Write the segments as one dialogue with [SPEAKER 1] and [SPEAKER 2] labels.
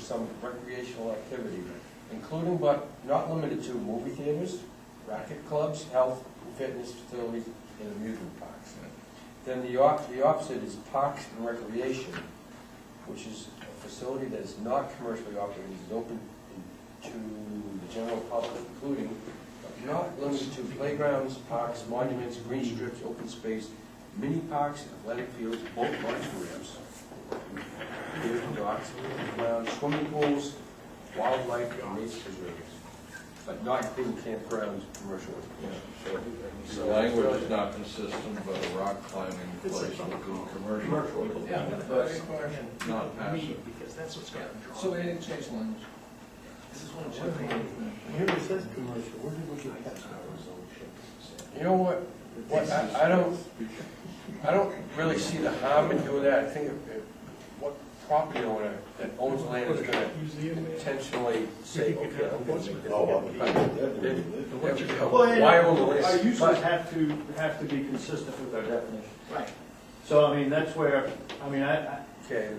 [SPEAKER 1] some recreational activity, including but not limited to movie theaters, racket clubs, health and fitness facilities, and amusement parks. Then the op, the opposite is parks and recreation, which is a facility that is not commercially operated, is open to the general public, including but not limited to playgrounds, parks, monuments, green strips, open space, mini parks, athletic fields, boat launch ramps, piers and docks, grounds, swimming pools, wildlife, and nature preserves, but not including campgrounds, commercial.
[SPEAKER 2] The language is not consistent, but a rock climbing place would be commercial.
[SPEAKER 3] Yeah,
[SPEAKER 2] That's
[SPEAKER 3] requirement.
[SPEAKER 2] Not passive.
[SPEAKER 3] Because that's what's got to
[SPEAKER 4] So they didn't change the language.
[SPEAKER 3] This is one of the.
[SPEAKER 5] Here it says commercial, where did we get that?
[SPEAKER 1] You know what, what, I, I don't, I don't really see the harm in doing that, I think if, if, what property owner that owns land is gonna intentionally say, okay, I'm going to. Why own the
[SPEAKER 6] Our
[SPEAKER 1] land?
[SPEAKER 6] uses
[SPEAKER 1] But
[SPEAKER 6] have to, have to be consistent with our definition.
[SPEAKER 3] Right.
[SPEAKER 6] So, I mean, that's where, I mean, I, I,
[SPEAKER 1] Okay,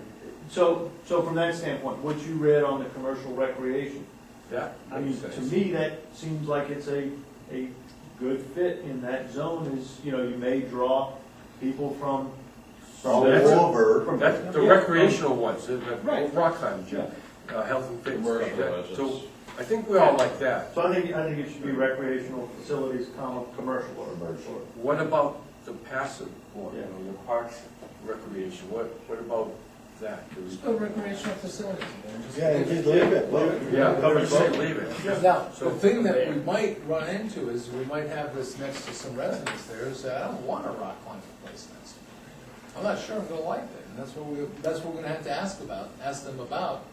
[SPEAKER 6] so, so from that standpoint, what you read on the commercial recreation,
[SPEAKER 1] that
[SPEAKER 6] I mean,
[SPEAKER 1] makes
[SPEAKER 6] to
[SPEAKER 1] sense.
[SPEAKER 6] me, that seems like it's a, a good fit in that zone is, you know, you may draw people from.
[SPEAKER 5] All
[SPEAKER 1] that's a-
[SPEAKER 5] over,
[SPEAKER 6] from-
[SPEAKER 1] That's the
[SPEAKER 6] Yeah.
[SPEAKER 1] recreational ones, the, the
[SPEAKER 6] Right.
[SPEAKER 1] rock climbing,
[SPEAKER 6] Yeah.
[SPEAKER 1] uh, health and fitness,
[SPEAKER 2] Commercial
[SPEAKER 1] that- so,
[SPEAKER 2] residence.
[SPEAKER 1] I think we all like that.
[SPEAKER 6] So I think, I think it should be recreational facilities, comma, commercial or. Commercial.
[SPEAKER 1] What about the passive one, you know, the parks recreation, what, what about that? Do we-
[SPEAKER 4] Still recreational facilities.
[SPEAKER 5] yeah, and just leave it, leave it.
[SPEAKER 1] Yeah, I'm gonna say leave it.
[SPEAKER 4] Now, the thing that we might run into is we might have this next to some residents there, is that I don't want a rock climbing place next to me. I'm not sure I'm gonna like it, and that's what we, that's what we're gonna have to ask about, ask them about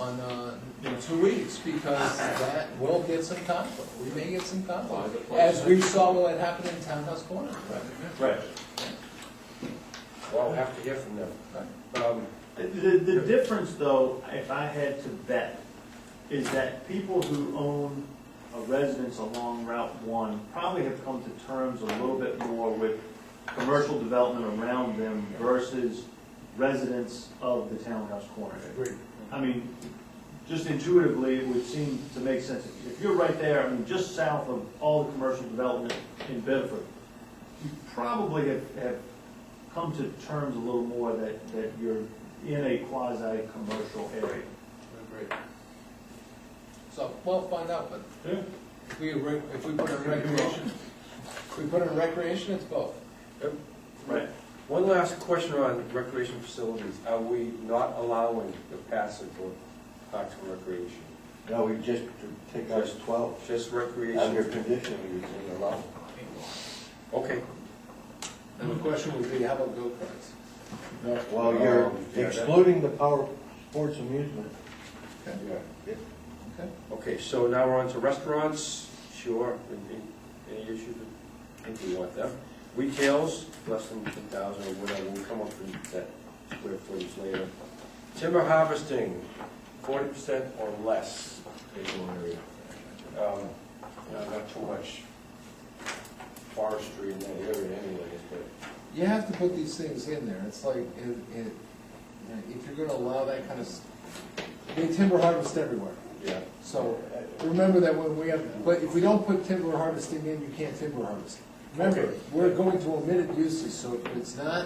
[SPEAKER 4] on, uh, in two weeks, because that will get some conflict, we may get some conflict. As we saw what happened in Townhouse Corner, right?
[SPEAKER 6] Right.
[SPEAKER 1] Well, I'll have to hear from them. Um,
[SPEAKER 6] The, the difference, though, if I had to bet, is that people who own a residence along Route One probably have come to terms a little bit more with commercial development around them versus residents of the townhouse corner.
[SPEAKER 4] Agreed.
[SPEAKER 6] I mean, just intuitively, it would seem to make sense. If you're right there, I mean, just south of all the commercial development in Bedford, you probably have, have come to terms a little more that, that you're in a quasi-commercial area.
[SPEAKER 4] Agreed. So, well, find out, but
[SPEAKER 6] Yeah.
[SPEAKER 4] If we, re- if we put in recreation, if we put in recreation, it's both.
[SPEAKER 6] Right.
[SPEAKER 1] One last question on recreation facilities. Are we not allowing the passive or parks and recreation?
[SPEAKER 5] No, we just to take out twelve,
[SPEAKER 1] Just
[SPEAKER 5] under
[SPEAKER 1] recreation?
[SPEAKER 5] conditional use, and allow.
[SPEAKER 1] Okay.
[SPEAKER 4] And the question would be, how about go-karts?
[SPEAKER 5] Well, you're
[SPEAKER 1] Um, yeah, that-
[SPEAKER 5] excluding the power sports amusement.
[SPEAKER 4] Okay.
[SPEAKER 1] Okay, so now we're on to restaurants. Sure, any- any issues? I think we want them. Retails, less than ten thousand or whatever, we'll come up with that square footage later. Timber harvesting, forty percent or less. vacant area. Um, no, Not too much forestry in that area anyways, but
[SPEAKER 4] You have to put these things in there, it's like, it, it, you know, if you're gonna allow that kind of, s- they timber harvest everywhere.
[SPEAKER 1] yeah.
[SPEAKER 4] So, uh, remember that when we have, but if we don't put timber harvesting in, you can't timber harvest. Remember,
[SPEAKER 1] Okay.
[SPEAKER 4] we're going to omitted uses, so if it's not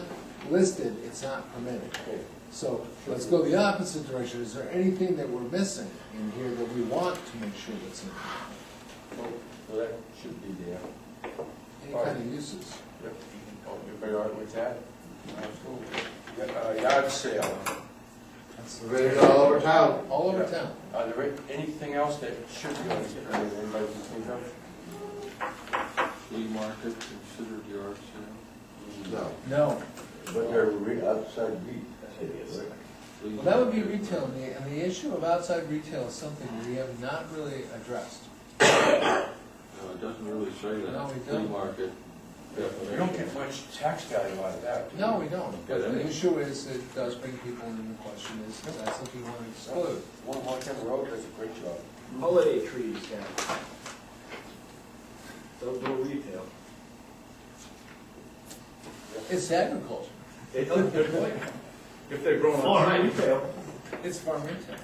[SPEAKER 4] listed, it's not permitted.
[SPEAKER 1] Okay.
[SPEAKER 4] So let's go the opposite direction. Is there anything that we're missing in here that we want to make sure that's in?
[SPEAKER 1] Well, that should be there.
[SPEAKER 4] Any kind of uses?
[SPEAKER 1] Yep. Everybody all right with that? Absolutely. Yeah, uh, Yard sale.
[SPEAKER 4] Rated all over town. All over
[SPEAKER 1] Yeah.
[SPEAKER 4] town.
[SPEAKER 1] Are there anything else that should be on this plan, anybody can think of?
[SPEAKER 2] Flea market considered yard sale?
[SPEAKER 5] No,
[SPEAKER 4] No.
[SPEAKER 5] but they're re- outside beat.
[SPEAKER 2] Flea
[SPEAKER 4] Well, that would be retail, and the, and the issue of outside retail is something we have not really addressed.
[SPEAKER 2] No, it doesn't really say that.
[SPEAKER 4] No, it
[SPEAKER 2] Flea
[SPEAKER 4] don't.
[SPEAKER 2] market
[SPEAKER 1] We don't
[SPEAKER 2] definition.
[SPEAKER 1] get much tax value out of that. do we?
[SPEAKER 4] No, we don't. But
[SPEAKER 2] Yeah,
[SPEAKER 4] the
[SPEAKER 2] that-
[SPEAKER 4] issue is, it does bring people into question, is that's what we want to exclude.
[SPEAKER 1] One Montana Road does a great job.
[SPEAKER 3] Holiday trees down. Don't do retail.
[SPEAKER 4] It's agriculture.
[SPEAKER 3] They don't, good point. oh, If they're growing.
[SPEAKER 6] Farm retail.
[SPEAKER 4] It's farm retail.